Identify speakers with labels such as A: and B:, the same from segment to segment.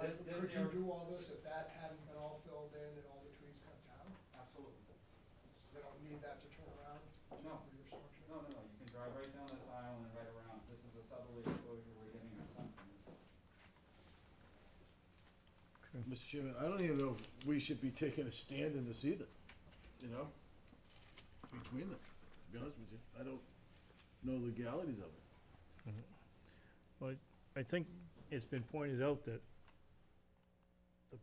A: Would you do all this if that hadn't been all filled in and all the trees cut down?
B: Absolutely.
A: So they don't need that to turn around
B: No.
A: for your structure?
B: No, no, no, you can drive right down this aisle and right around. This is a southerly exposure we're getting on something.
C: Mr. Chairman, I don't even know if we should be taking a stand in this either, you know? Between them, to be honest with you, I don't know legalities of it.
D: I think it's been pointed out that the-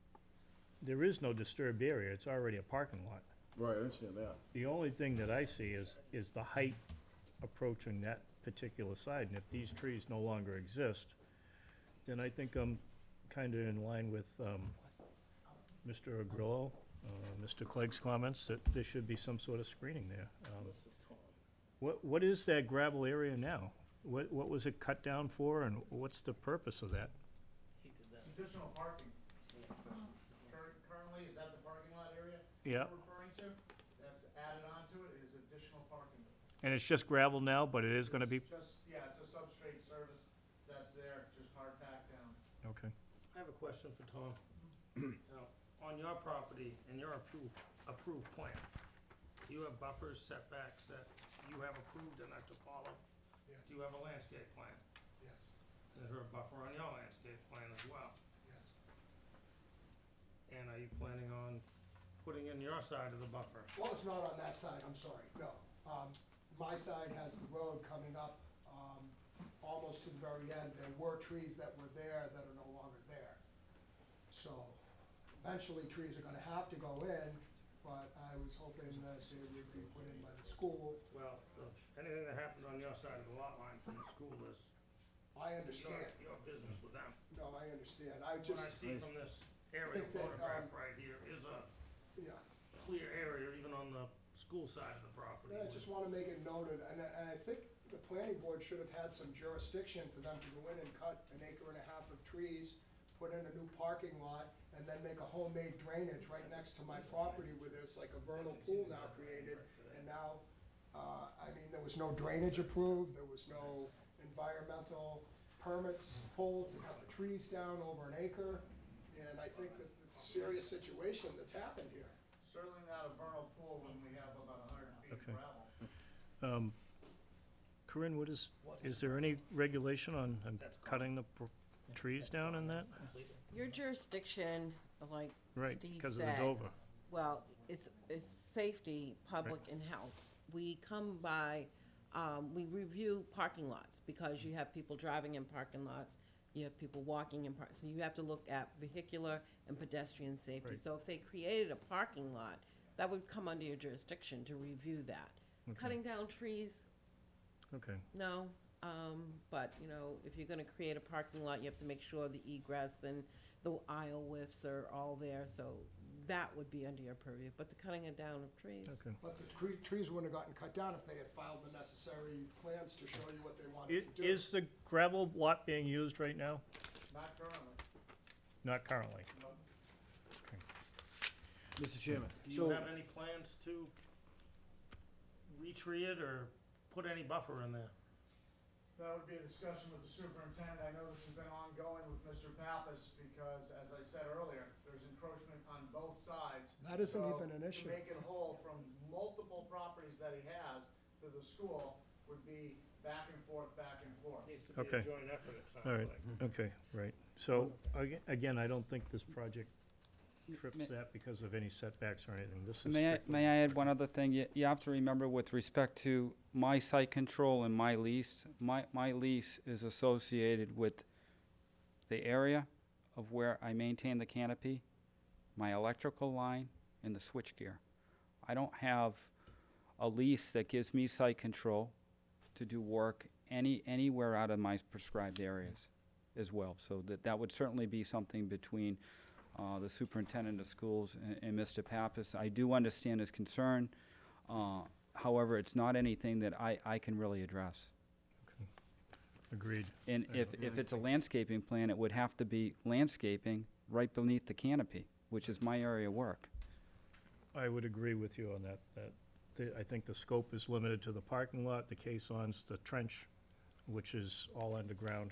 D: there is no disturbed area, it's already a parking lot.
C: Right, I understand that.
D: The only thing that I see is, is the height approaching that particular side, and if these trees no longer exist, then I think I'm kinda in line with, um, Mr. Agrillo, uh, Mr. Clegg's comments, that there should be some sort of screening there. Um, What, what is that gravel area now? What, what was it cut down for, and what's the purpose of that?
E: Additional parking. Cur- Currently, is that the parking lot area?
D: Yeah,
E: We're referring to, that's added on to it, is additional parking.
D: and it's just gravel now, but it is gonna be,
E: Just, yeah, it's a substrate service that's there, just hard packed down.
D: okay.
F: I have a question for Tom. Now, on your property and your approved, approved plan, do you have buffers, setbacks that you have approved and are to follow?
A: Yes,
F: Do you have a landscape plan?
A: yes,
F: Is there a buffer on your landscape plan as well?
A: yes.
F: And are you planning on putting in your side of the buffer?
A: Well, it's not on that side, I'm sorry, no. Um, my side has the road coming up, um, almost to the very end. There were trees that were there that are no longer there. So eventually trees are gonna have to go in, but I was hoping that they would be put in by the school.
F: Well, the- anything that happened on your side of the lot line from the school is
A: I
F: your,
A: understand,
F: your business with them.
A: no, I understand, I
F: What
A: just,
F: I see from this aerial
A: Think that,
F: photograph
A: um,
F: right here is a
A: yeah.
F: clear area even on the school side of the property.
A: And I just wanna make it noted, and I, and I think the planning board should have had some jurisdiction for them to go in and cut an acre and a half of trees, put in a new parking lot, and then make a homemade drainage right next to my property where there's like a vernal pool now created. And now, uh, I mean, there was no drainage approved, there was no environmental permits pulled to cut the trees down over an acre. And I think that it's a serious situation that's happened here.
E: Certainly not a vernal pool when we have about a hundred feet of
D: Okay.
E: gravel.
D: Um, Corinne, what is, is there any regulation on on
F: That's gone.
D: cutting the pr- trees down in that?
G: Your jurisdiction, like
D: Right,
G: Steve
D: because of the
G: said,
D: Dover.
G: well, it's, it's safety, public and health. We come by, um, we review parking lots because you have people driving in parking lots, you have people walking in park, so you have to look at vehicular and pedestrian safety.
D: Right.
G: So if they created a parking lot, that would come under your jurisdiction to review that.
D: Okay.
G: Cutting down trees,
D: Okay,
G: no, um, but, you know, if you're gonna create a parking lot, you have to make sure the egress and the aisle widths are all there, so that would be under your purview, but the cutting it down of trees.
D: okay.
A: But the cre- trees wouldn't have gotten cut down if they had filed the necessary plans to show you what they
D: I-
A: wanted to do.
D: Is the gravel lot being used right now?
E: Not currently.
D: Not currently.
C: Mr. Chairman,
F: Do you
C: so,
F: have any plans to retree it or put any buffer in there?
E: That would be a discussion with the superintendent. I know this has been ongoing with Mr. Pappas because, as I said earlier, there's encroachment on both sides.
A: That isn't
E: So,
A: even an issue.
E: To make it whole from multiple properties that he has to the school would be back and forth, back and forth.
F: Needs to be
D: Okay.
F: a joint effort, it sounds
D: All right.
F: like.
D: Okay, right. So, aga- again, I don't think this project trips
H: May-
D: that because of any setbacks or anything. This is
H: May I,
D: strictly-
H: may I add one other thing? You, you have to remember with respect to my site control and my lease, my, my lease is associated with the area of where I maintain the canopy, my electrical line, and the switchgear. I don't have a lease that gives me site control to do work any, anywhere out of my prescribed areas as well. So that, that would certainly be something between uh, the superintendent of schools and- and Mr. Pappas. I do understand his concern. uh, However, it's not anything that I, I can really address.
D: Agreed.
H: And if, if it's a landscaping plan, it would have to be landscaping right beneath the canopy, which is my area of work.
D: I would agree with you on that, that, the- I think the scope is limited to the parking lot, the caissons, the trench, which is all underground,